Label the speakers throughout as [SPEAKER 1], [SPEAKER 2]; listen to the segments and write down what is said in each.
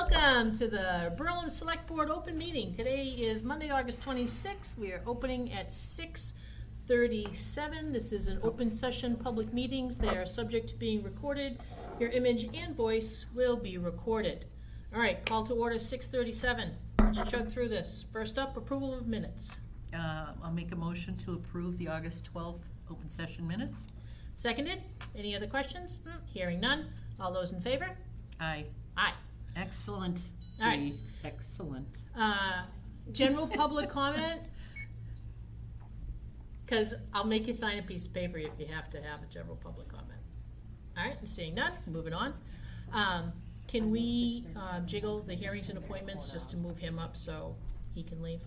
[SPEAKER 1] Welcome to the Berlin Select Board Open Meeting. Today is Monday, August 26th. We are opening at 6:37. This is an open session, public meetings. They are subject to being recorded. Your image and voice will be recorded. All right, call to order 6:37. Let's chug through this. First up, approval of minutes.
[SPEAKER 2] Uh, I'll make a motion to approve the August 12th open session minutes.
[SPEAKER 1] Seconded. Any other questions? Hmm, Hearing none. All those in favor?
[SPEAKER 2] Aye.
[SPEAKER 1] Aye.
[SPEAKER 2] Excellent.
[SPEAKER 1] All right.
[SPEAKER 2] Dee. Excellent.
[SPEAKER 1] Uh, General public comment? Because I'll make you sign a piece of paper if you have to have a general public comment. All right, seeing none, moving on. Um, Can we uh, jiggle the hearings and appointments just to move him up so he can leave?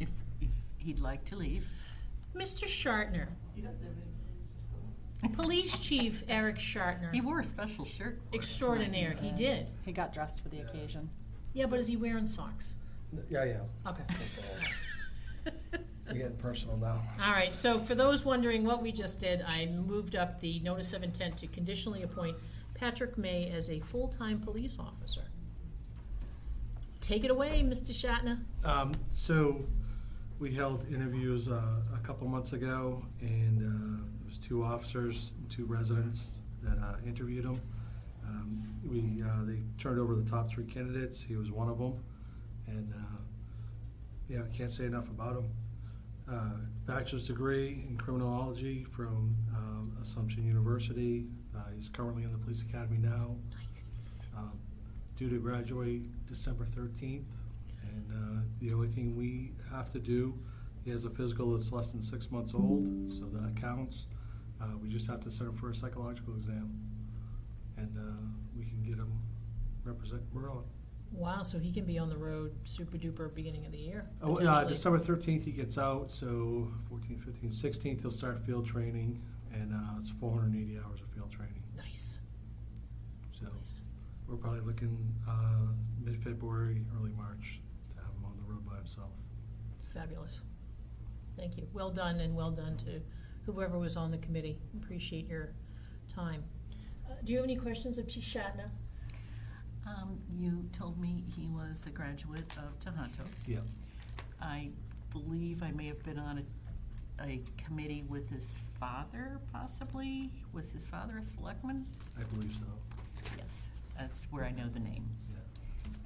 [SPEAKER 2] If, if he'd like to leave.
[SPEAKER 1] Mr. Shartner. Police Chief Eric
[SPEAKER 2] He
[SPEAKER 1] Shartner.
[SPEAKER 2] wore a special shirt. for us tonight.
[SPEAKER 1] Extraordinaire, he did.
[SPEAKER 3] He got dressed for the occasion.
[SPEAKER 1] Yeah, but is he wearing socks?
[SPEAKER 4] Yeah, yeah,
[SPEAKER 1] Okay.
[SPEAKER 4] we're getting personal now.
[SPEAKER 1] All right, so for those wondering what we just did, I moved up the notice of intent to conditionally appoint Patrick May as a full-time police officer. Take it away, Mr. Shatner.
[SPEAKER 5] Um, so we held interviews uh, a couple months ago, and uh, it was two officers, two residents that uh, interviewed him. Um, we uh, they turned over the top three candidates. He was one of them, and uh, yeah, I can't say enough about him. Uh, bachelor's degree in criminology from um, Assumption University. Uh, he's currently in the police academy now. Um, due to graduate December 13th. And uh, the only thing we have to do, he has a physical that's less than six months old, so that counts. Uh, We just have to send him for a psychological exam, and uh, we can get him represent Berlin.
[SPEAKER 1] Wow, so he can be on the road super duper beginning of the year,
[SPEAKER 5] Oh,
[SPEAKER 1] potentially.
[SPEAKER 5] uh, December 13th, he gets out, so 14, 15, 16th, he'll start field training, and uh, it's 480 hours of field training.
[SPEAKER 1] Nice,
[SPEAKER 5] So
[SPEAKER 1] nice.
[SPEAKER 5] we're probably looking uh, mid-February, early March to have him on the road by himself.
[SPEAKER 1] Fabulous. Thank you. Well done, and well done to whoever was on the committee. Appreciate your time. Uh, Do you have any questions of Chief Shatner?
[SPEAKER 2] Um, you told me he was a graduate of Tohoto.
[SPEAKER 5] Yeah,
[SPEAKER 2] I believe I may have been on a, a committee with his father, possibly. Was his father a selectman?
[SPEAKER 5] I believe so.
[SPEAKER 2] Yes, that's where I know the name.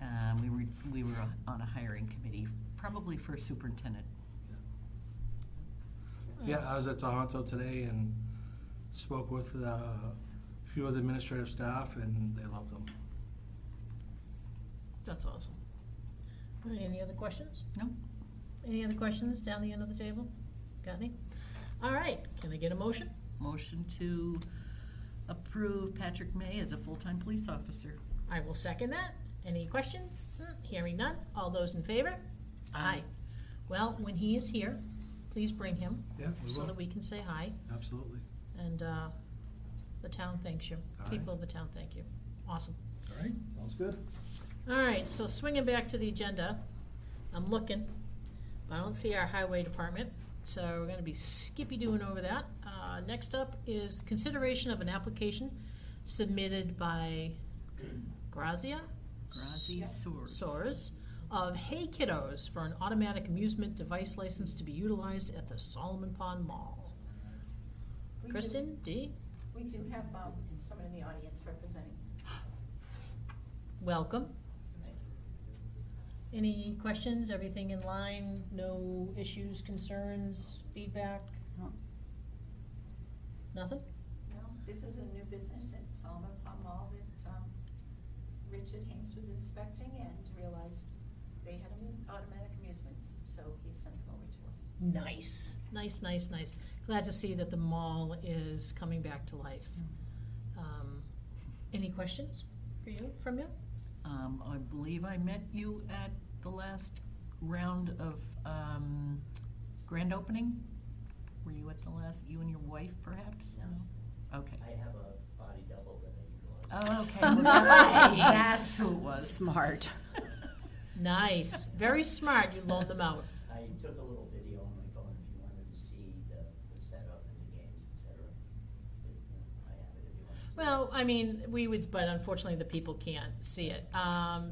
[SPEAKER 5] Yeah.
[SPEAKER 2] Um, we were, we were on a hiring committee, probably for superintendent.
[SPEAKER 5] Yeah, I was at Tohoto today and spoke with uh, a few of the administrative staff, and they loved them.
[SPEAKER 1] That's awesome. All right, any other questions?
[SPEAKER 2] No?
[SPEAKER 1] Any other questions down the end of the table? Got any? All right, can I get a motion?
[SPEAKER 2] Motion to approve Patrick May as a full-time police officer.
[SPEAKER 1] I will second that. Any questions? Hmm, Hearing none. All those in favor?
[SPEAKER 2] Aye.
[SPEAKER 1] Well, when he is here, please bring him
[SPEAKER 5] Yeah, we
[SPEAKER 1] so that
[SPEAKER 5] will,
[SPEAKER 1] we can say hi
[SPEAKER 5] absolutely.
[SPEAKER 1] and uh, the town thanks you.
[SPEAKER 5] All right.
[SPEAKER 1] People of the town thank you. Awesome.
[SPEAKER 4] All right, sounds good.
[SPEAKER 1] All right, so swinging back to the agenda, I'm looking, but I don't see our highway department, so we're gonna be skippy-doing over that. Uh, next up is consideration of an application submitted by Grazia
[SPEAKER 2] Grazi Soers.
[SPEAKER 1] Soares of Hey Kiddos for an automatic amusement device license to be utilized at the Solomon Pond Mall.
[SPEAKER 6] We do-
[SPEAKER 1] Kristen, D,
[SPEAKER 6] We do have um, someone in the audience representing.
[SPEAKER 1] welcome. Any questions? Everything in line? No issues, concerns, feedback?
[SPEAKER 3] No.
[SPEAKER 1] Nothing?
[SPEAKER 6] No, This is a new business at Solomon Palm Mall that um, Richard Hanks was inspecting and realized they had amu- automatic amusements, so he sent them over to us.
[SPEAKER 1] Nice. Nice, nice, nice. Glad to see that the mall is coming back to life. Um, Any questions for you, from you?
[SPEAKER 2] Um, I believe I met you at the last round of, um, grand opening? Were you at the last, you and your wife perhaps? No? Okay.
[SPEAKER 7] I have a body double that I utilize.
[SPEAKER 2] Oh, okay. well, that-
[SPEAKER 1] Nice.
[SPEAKER 2] That's who it was.
[SPEAKER 3] Smart.
[SPEAKER 1] Nice. Very smart. You loaned them out.
[SPEAKER 7] I took a little video on my phone if you wanted to see the, the setup and the games, et cetera. I have it if you want to see. it.
[SPEAKER 1] Well, I mean, we would, but unfortunately, the people can't see it. Um,